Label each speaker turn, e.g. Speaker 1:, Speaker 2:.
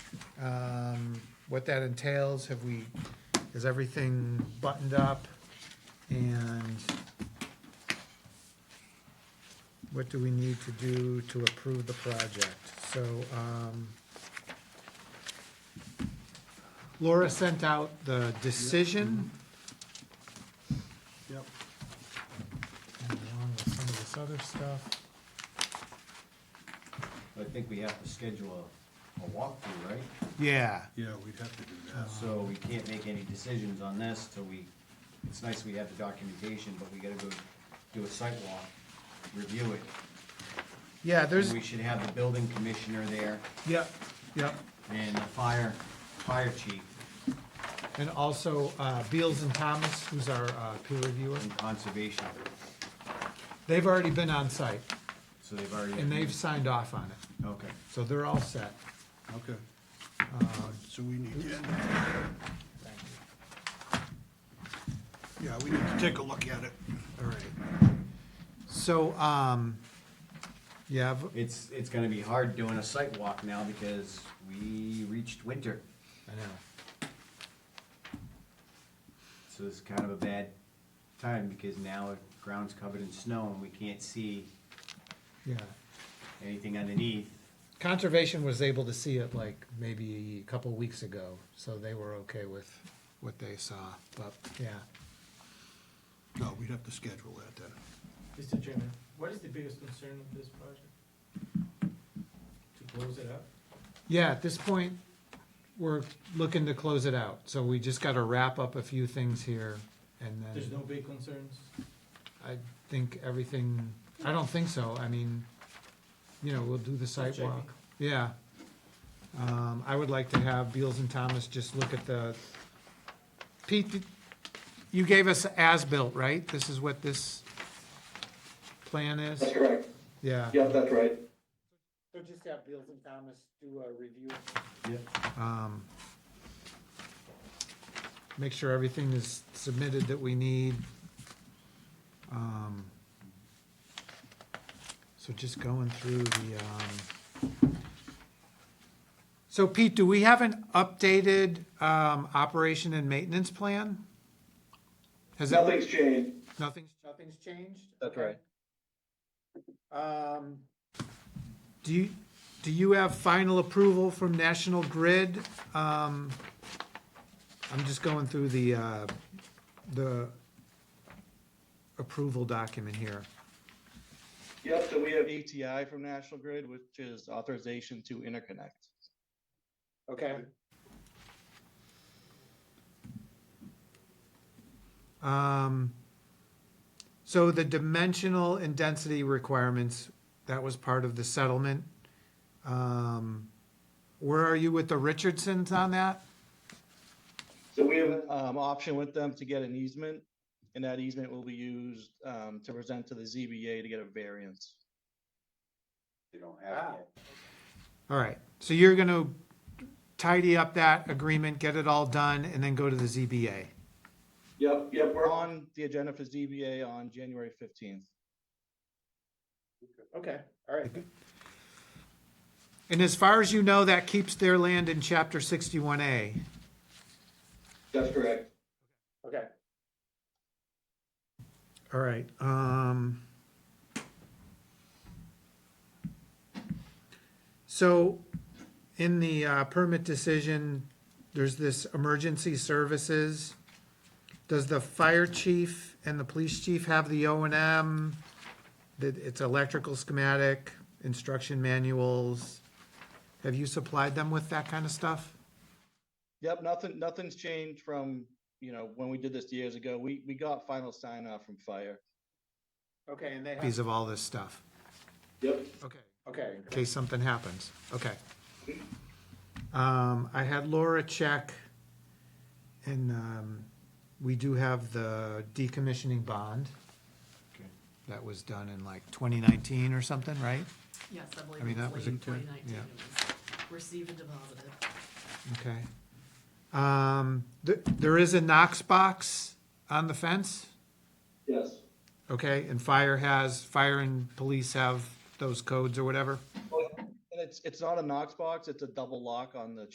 Speaker 1: um, what that entails, have we, is everything buttoned up? And what do we need to do to approve the project? So, um, Laura sent out the decision
Speaker 2: Yep.
Speaker 1: and along with some of this other stuff.
Speaker 3: I think we have to schedule a, a walkthrough, right?
Speaker 1: Yeah,
Speaker 2: Yeah, we'd have to do that.
Speaker 3: So we can't make any decisions on this till we, it's nice we have the documentation, but we gotta go do a site walk, review it.
Speaker 1: yeah, there's,
Speaker 3: And we should have the building commissioner there
Speaker 1: yep, yep.
Speaker 3: and the fire, fire chief
Speaker 1: And also uh, Beals and Thomas, who's our uh, peer reviewer,
Speaker 3: and conservation.
Speaker 1: they've already been on site
Speaker 3: So they've already.
Speaker 1: and they've signed off on it.
Speaker 3: Okay.
Speaker 1: So they're all set.
Speaker 2: Okay. Uh, So we need to. Yeah, we need to take a look at it.
Speaker 1: All right. So, um, yeah, v-
Speaker 3: It's, it's gonna be hard doing a site walk now because we reached winter,
Speaker 1: I know.
Speaker 3: so it's kind of a bad time because now the ground's covered in snow and we can't see
Speaker 1: Yeah.
Speaker 3: anything underneath.
Speaker 1: Conservation was able to see it like maybe a couple weeks ago, so they were okay with what they saw, but yeah.
Speaker 2: No, we'd have to schedule that then.
Speaker 4: Mr. Chairman, what is the biggest concern of this project? To close it up?
Speaker 1: Yeah, at this point, we're looking to close it out, so we just gotta wrap up a few things here and then.
Speaker 4: There's no big concerns?
Speaker 1: I think everything, I don't think so, I mean, you know, we'll do the site
Speaker 4: checking.
Speaker 1: walk. yeah. Um, I would like to have Beals and Thomas just look at the, Pete, did- you gave us as-built, right? This is what this plan is?
Speaker 5: That's correct.
Speaker 1: Yeah.
Speaker 5: Yeah, that's right.
Speaker 1: So just have Beals and Thomas do a review.
Speaker 3: Yep.
Speaker 1: Um, make sure everything is submitted that we need. Um, so just going through the, um, so Pete, do we have an updated, um, operation and maintenance plan? Has that?
Speaker 5: Nothing's changed.
Speaker 1: Nothing's, nothing's changed?
Speaker 5: That's right.
Speaker 1: Um, do you, do you have final approval from National Grid? Um, I'm just going through the, uh, the approval document here.
Speaker 5: Yep, so we have,
Speaker 6: ATI from National Grid, which is authorization to interconnect.
Speaker 1: Okay. Um, so the dimensional and density requirements, that was part of the settlement. Um, where are you with the Richardsons on that?
Speaker 5: so we have,
Speaker 6: Um, option with them to get an easement, and that easement will be used, um, to present to the ZBA to get a variance.
Speaker 3: They don't have it yet.
Speaker 1: All right, so you're gonna tidy up that agreement, get it all done, and then go to the ZBA.
Speaker 5: yep, yep,
Speaker 6: We're
Speaker 5: we're on.
Speaker 6: on the agenda for ZBA on January fifteenth.
Speaker 1: Okay, all right. And as far as you know, that keeps their land in chapter sixty-one A.
Speaker 5: That's correct.
Speaker 1: Okay. All right, um. So, in the uh, permit decision, there's this emergency services. Does the fire chief and the police chief have the O and M? That it's electrical schematic, instruction manuals? Have you supplied them with that kind of stuff?
Speaker 6: Yep, nothing, nothing's changed from, you know, when we did this years ago. We, we got final sign off from fire.
Speaker 1: Okay, and they have. Piece of all this stuff,
Speaker 5: Yep.
Speaker 1: okay.
Speaker 4: Okay.
Speaker 1: in case something happens. Okay. Um, I had Laura check, and, um, we do have the decommissioning bond.
Speaker 3: Okay.
Speaker 1: That was done in like twenty nineteen or something, right?
Speaker 7: Yes, I
Speaker 1: I mean,
Speaker 7: believe
Speaker 1: that
Speaker 7: it's
Speaker 1: was
Speaker 7: late
Speaker 1: a
Speaker 7: in
Speaker 1: good-
Speaker 7: twenty nineteen,
Speaker 1: yeah.
Speaker 7: it was received and deposited.
Speaker 1: Okay. Um, th- there is a Knox box on the fence,
Speaker 5: Yes.
Speaker 1: okay, and fire has, fire and police have those codes or whatever?
Speaker 6: And it's, it's not a Knox box, it's a double lock on the